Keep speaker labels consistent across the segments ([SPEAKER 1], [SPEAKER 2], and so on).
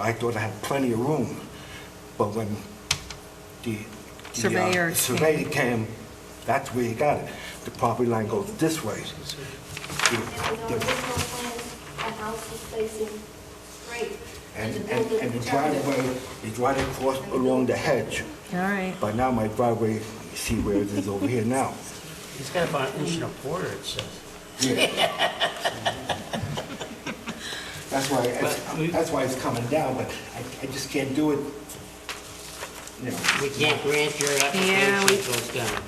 [SPEAKER 1] I thought I had plenty of room, but when the... the, uh,
[SPEAKER 2] Surveyor
[SPEAKER 1] Surveyor came, that's where he got it. The property line goes this way.
[SPEAKER 3] And on the
[SPEAKER 1] The- the-
[SPEAKER 3] original plan, the house was facing straight.
[SPEAKER 1] And,
[SPEAKER 3] the
[SPEAKER 1] and
[SPEAKER 3] building
[SPEAKER 1] and the
[SPEAKER 3] turned.
[SPEAKER 1] driveway is right across along the hedge.
[SPEAKER 2] All right.
[SPEAKER 1] But now my driveway, you see where it is over here now.
[SPEAKER 4] He's got about an inch and a quarter, it says.
[SPEAKER 1] That's why, it's-
[SPEAKER 4] But we-
[SPEAKER 1] that's why it's coming down, but I, I just can't do it, you know.
[SPEAKER 4] We can't grant your
[SPEAKER 2] Yeah,
[SPEAKER 4] application
[SPEAKER 2] we-
[SPEAKER 4] till it's done.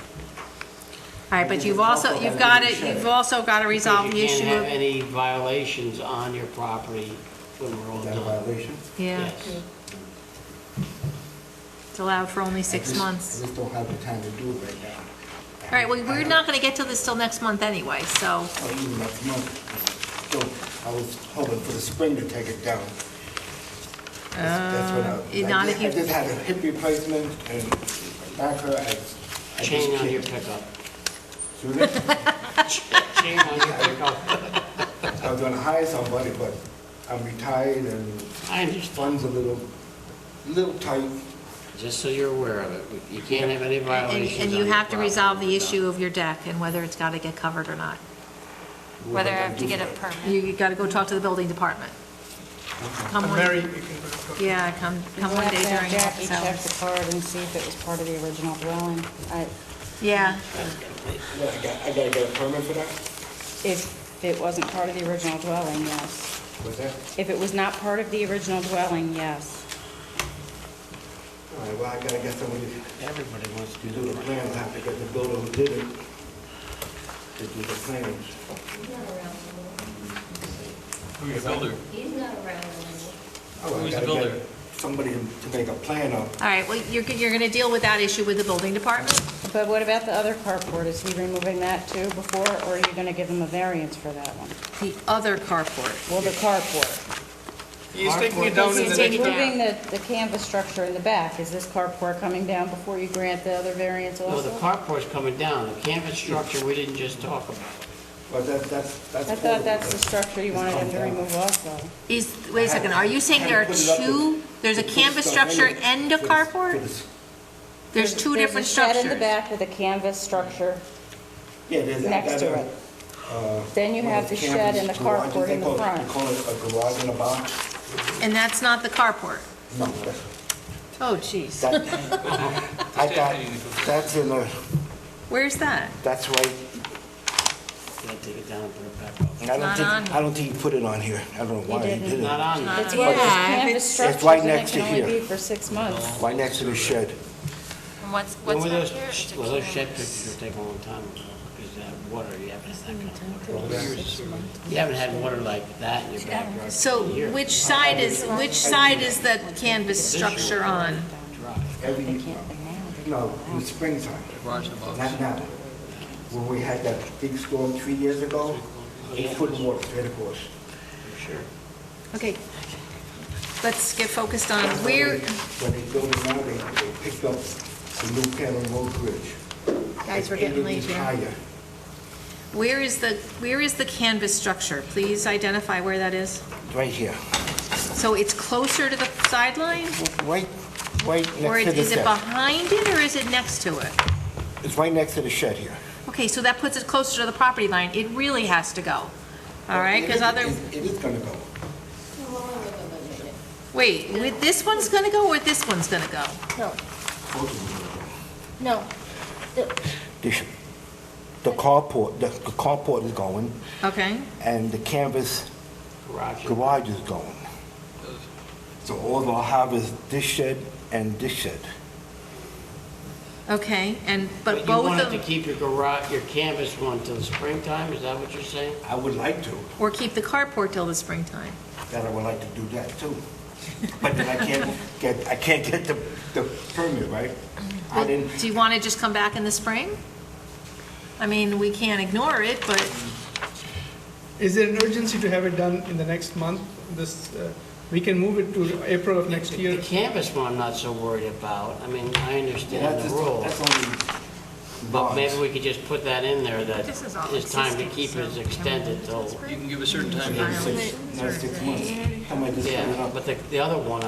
[SPEAKER 2] All right, but you've also, you've got to, you've also got to resolve the
[SPEAKER 4] You
[SPEAKER 2] issue
[SPEAKER 4] can't have
[SPEAKER 2] of,
[SPEAKER 4] any violations on your property when we're all
[SPEAKER 1] Is that a
[SPEAKER 4] done.
[SPEAKER 1] violation?
[SPEAKER 2] yeah,
[SPEAKER 4] Yes.
[SPEAKER 2] it's allowed for only
[SPEAKER 1] I
[SPEAKER 2] six
[SPEAKER 1] just-
[SPEAKER 2] months.
[SPEAKER 1] I just don't have the time to do it right now.
[SPEAKER 2] All right, well, we're not going to get to this till next month anyway, so,
[SPEAKER 1] Or oh, even next month. So I was hoping for the spring to take it down. That's- that's what I-
[SPEAKER 2] Uh,
[SPEAKER 1] I
[SPEAKER 2] not
[SPEAKER 1] just-
[SPEAKER 2] if you-
[SPEAKER 1] I just had a hip replacement and back her, I, I just
[SPEAKER 4] Chain on
[SPEAKER 1] can't-
[SPEAKER 4] your pickup.
[SPEAKER 1] Excuse me?
[SPEAKER 4] Chain on your pickup.
[SPEAKER 1] I was gonna hire somebody, but I'm retired and
[SPEAKER 4] I understand.
[SPEAKER 1] funds a little, little tight.
[SPEAKER 4] Just so you're aware of it, you can't have any
[SPEAKER 2] and
[SPEAKER 4] violations
[SPEAKER 2] and
[SPEAKER 4] on
[SPEAKER 2] you
[SPEAKER 4] your
[SPEAKER 2] have to
[SPEAKER 4] property
[SPEAKER 2] resolve
[SPEAKER 4] when
[SPEAKER 2] the
[SPEAKER 4] we're done.
[SPEAKER 2] issue of your deck and whether it's got to get covered or not.
[SPEAKER 5] Whether I have to get a permit.
[SPEAKER 2] You got to go talk to the building department. Come one,
[SPEAKER 6] Mary, you can,
[SPEAKER 2] yeah, come, come one day during
[SPEAKER 5] Jackie
[SPEAKER 2] office
[SPEAKER 5] check
[SPEAKER 2] hours.
[SPEAKER 5] the card and see if it was part of the original dwelling. I-
[SPEAKER 2] Yeah,
[SPEAKER 1] Yeah, I got- I gotta get a permit for that?
[SPEAKER 5] If it wasn't part of the original dwelling, yes.
[SPEAKER 1] What's that?
[SPEAKER 5] If it was not part of the original dwelling, yes.
[SPEAKER 1] All right, well, I gotta get somebody to
[SPEAKER 4] Everybody wants to
[SPEAKER 1] do
[SPEAKER 4] do
[SPEAKER 1] the
[SPEAKER 4] it.
[SPEAKER 1] plans, I have to get the builder who did it to do the plans.
[SPEAKER 3] He's not around anymore.
[SPEAKER 6] who's the builder?
[SPEAKER 3] He's not around anymore.
[SPEAKER 1] Oh, I
[SPEAKER 6] Who's the
[SPEAKER 1] gotta get
[SPEAKER 6] builder?
[SPEAKER 1] Somebody to make a plan of.
[SPEAKER 2] all right, well, you're, you're going to deal with that issue with the building department?
[SPEAKER 5] But what about the other carport? Is he removing that too before, or are you going to give him a variance for that one?
[SPEAKER 2] The other carport.
[SPEAKER 5] Well, the carport.
[SPEAKER 6] He's taking it down in
[SPEAKER 2] He's
[SPEAKER 6] the
[SPEAKER 2] taking
[SPEAKER 6] next,
[SPEAKER 2] it down.
[SPEAKER 5] Moving the, the canvas structure in the back, is this carport coming down before you grant the other variance
[SPEAKER 4] No,
[SPEAKER 5] also?
[SPEAKER 4] the carport's coming down, the canvas structure, we didn't just talk about.
[SPEAKER 1] But that, that's, that's.
[SPEAKER 5] I thought that's the structure you wanted him to remove also.
[SPEAKER 2] Is, wait a second, are you saying there are two, there's a canvas structure and a carport? There's two different
[SPEAKER 5] There's a shed in the
[SPEAKER 2] structures.
[SPEAKER 5] back with a canvas structure.
[SPEAKER 1] Yeah, there's that.
[SPEAKER 5] Next
[SPEAKER 1] that,
[SPEAKER 5] to
[SPEAKER 1] uh,
[SPEAKER 5] it. Then you
[SPEAKER 1] one
[SPEAKER 5] have
[SPEAKER 1] of
[SPEAKER 5] the
[SPEAKER 1] those
[SPEAKER 5] shed and the
[SPEAKER 1] campers,
[SPEAKER 5] carport in the
[SPEAKER 1] garages, they
[SPEAKER 5] front.
[SPEAKER 1] call it- They call it a garage in a box?
[SPEAKER 2] And that's not the carport?
[SPEAKER 1] No, that's-
[SPEAKER 2] Oh, jeez.
[SPEAKER 1] that, I got, that's in a,
[SPEAKER 2] Where's that?
[SPEAKER 1] that's right.
[SPEAKER 4] Gotta take it down and put it back up.
[SPEAKER 1] I don't
[SPEAKER 2] not on
[SPEAKER 1] think,
[SPEAKER 2] here.
[SPEAKER 1] I don't think you put it on here. I don't know why you
[SPEAKER 5] didn't.
[SPEAKER 1] did
[SPEAKER 4] Not
[SPEAKER 1] it.
[SPEAKER 4] on there.
[SPEAKER 5] It's one of those
[SPEAKER 2] Yeah, if
[SPEAKER 5] canvas
[SPEAKER 1] it's
[SPEAKER 5] structures
[SPEAKER 1] right
[SPEAKER 5] and it
[SPEAKER 1] next to
[SPEAKER 5] can only
[SPEAKER 1] here.
[SPEAKER 5] be for six months.
[SPEAKER 1] Right next to the shed.
[SPEAKER 7] And What's,
[SPEAKER 4] Well,
[SPEAKER 7] what's
[SPEAKER 4] with
[SPEAKER 7] not
[SPEAKER 4] those,
[SPEAKER 7] here is the
[SPEAKER 4] well, those shed
[SPEAKER 7] canvas.
[SPEAKER 4] pictures take a long time, because that water, you haven't had that kind of water. You haven't had water like that in your backyard.
[SPEAKER 2] So
[SPEAKER 4] in years.
[SPEAKER 2] which side is, which side is the canvas structure on?
[SPEAKER 4] Dry.
[SPEAKER 1] Every, no, in the springtime. Not now. When we had that big storm three years ago, eight foot of water straight across.
[SPEAKER 4] Sure.
[SPEAKER 2] Okay, let's get focused on where,
[SPEAKER 1] When they built it now, they, they picked up the new Cannon Road Bridge.
[SPEAKER 2] guys,
[SPEAKER 1] It's
[SPEAKER 2] we're
[SPEAKER 1] eight
[SPEAKER 2] getting late
[SPEAKER 1] inches
[SPEAKER 2] here.
[SPEAKER 1] Higher.
[SPEAKER 2] Where is the, where is the canvas structure? Please identify where that is.
[SPEAKER 1] Right here.
[SPEAKER 2] So it's closer to the sideline?
[SPEAKER 1] Right, right
[SPEAKER 2] Or
[SPEAKER 1] next to the
[SPEAKER 2] is it
[SPEAKER 1] shed.
[SPEAKER 2] behind it, or is it next to it?
[SPEAKER 1] It's right next to the shed here.
[SPEAKER 2] Okay, so that puts it closer to the property line. It really has to go, all right? Because
[SPEAKER 1] It
[SPEAKER 2] other,
[SPEAKER 1] is- It is gonna go.
[SPEAKER 2] wait, with this one's going to go, or this one's going to go?
[SPEAKER 1] Both of them are gonna go.
[SPEAKER 7] No,
[SPEAKER 1] The sh- The carport, the the carport is going,
[SPEAKER 2] Okay,
[SPEAKER 1] and the canvas
[SPEAKER 4] Garage.
[SPEAKER 1] garage is going. So all they'll have is this shed and this shed.
[SPEAKER 2] okay, and, but
[SPEAKER 4] But you
[SPEAKER 2] both
[SPEAKER 4] wanted to
[SPEAKER 2] of,
[SPEAKER 4] keep your garage, your canvas one till the springtime, is that what you're saying?
[SPEAKER 1] I would like to,
[SPEAKER 2] or keep the carport till the springtime?
[SPEAKER 1] that I would like to do that too. But then I can't get, I can't get the, the permit, right? I
[SPEAKER 2] Well,
[SPEAKER 1] didn't,
[SPEAKER 2] Do you want to just come back in the spring? I mean, we can't ignore it, but,
[SPEAKER 6] is there an urgency to have it done in the next month? This, uh, we can move it to April of next
[SPEAKER 4] The
[SPEAKER 6] year.
[SPEAKER 4] canvas one I'm not so worried about, I mean, I
[SPEAKER 1] Yeah,
[SPEAKER 4] understand
[SPEAKER 1] that's
[SPEAKER 4] the
[SPEAKER 1] just-
[SPEAKER 4] rule.
[SPEAKER 1] that's only
[SPEAKER 4] But
[SPEAKER 1] bonds.
[SPEAKER 4] maybe we could just put that in there, that
[SPEAKER 7] This is all
[SPEAKER 4] it's time to
[SPEAKER 7] existing,
[SPEAKER 4] keep it
[SPEAKER 7] so
[SPEAKER 4] extended
[SPEAKER 7] can we-
[SPEAKER 4] till,
[SPEAKER 8] You can give a certain time.
[SPEAKER 1] Another six- another six months. How am I just put it
[SPEAKER 4] yeah,
[SPEAKER 1] up?
[SPEAKER 4] but the, the other one,